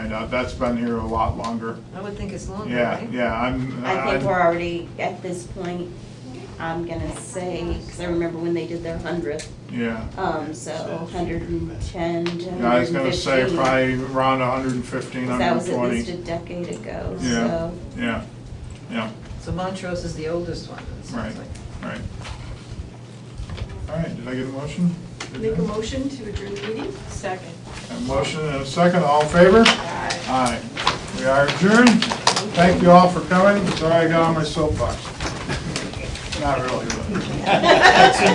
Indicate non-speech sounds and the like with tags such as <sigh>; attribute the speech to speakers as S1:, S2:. S1: and uh, that's been here a lot longer.
S2: I would think it's longer,
S1: Yeah,
S2: right?
S1: yeah, I'm.
S3: Oh,
S1: uh,
S3: I think we're already at this point, I'm gonna say, because I remember when they did their hundredth,
S1: Yeah.
S3: um, so hundred and ten to
S1: Yeah, I was gonna say
S3: 115.
S1: probably around hundred and fifteen,
S3: 'Cause
S1: hundred
S3: That
S1: and
S3: was at least a
S1: twenty.
S3: decade ago,
S1: Yeah,
S3: so.
S1: yeah, yeah,
S2: So Montrose is the oldest one, it
S1: right,
S2: sounds like.
S1: right. All right, did I get a motion?
S4: Make a motion to adjourn the meeting? Second.
S1: A motion and a second, all in favor? Aye. We are adjourned. Thank you all for <laughs> coming. Sorry I got on my soapbox. Not really, but.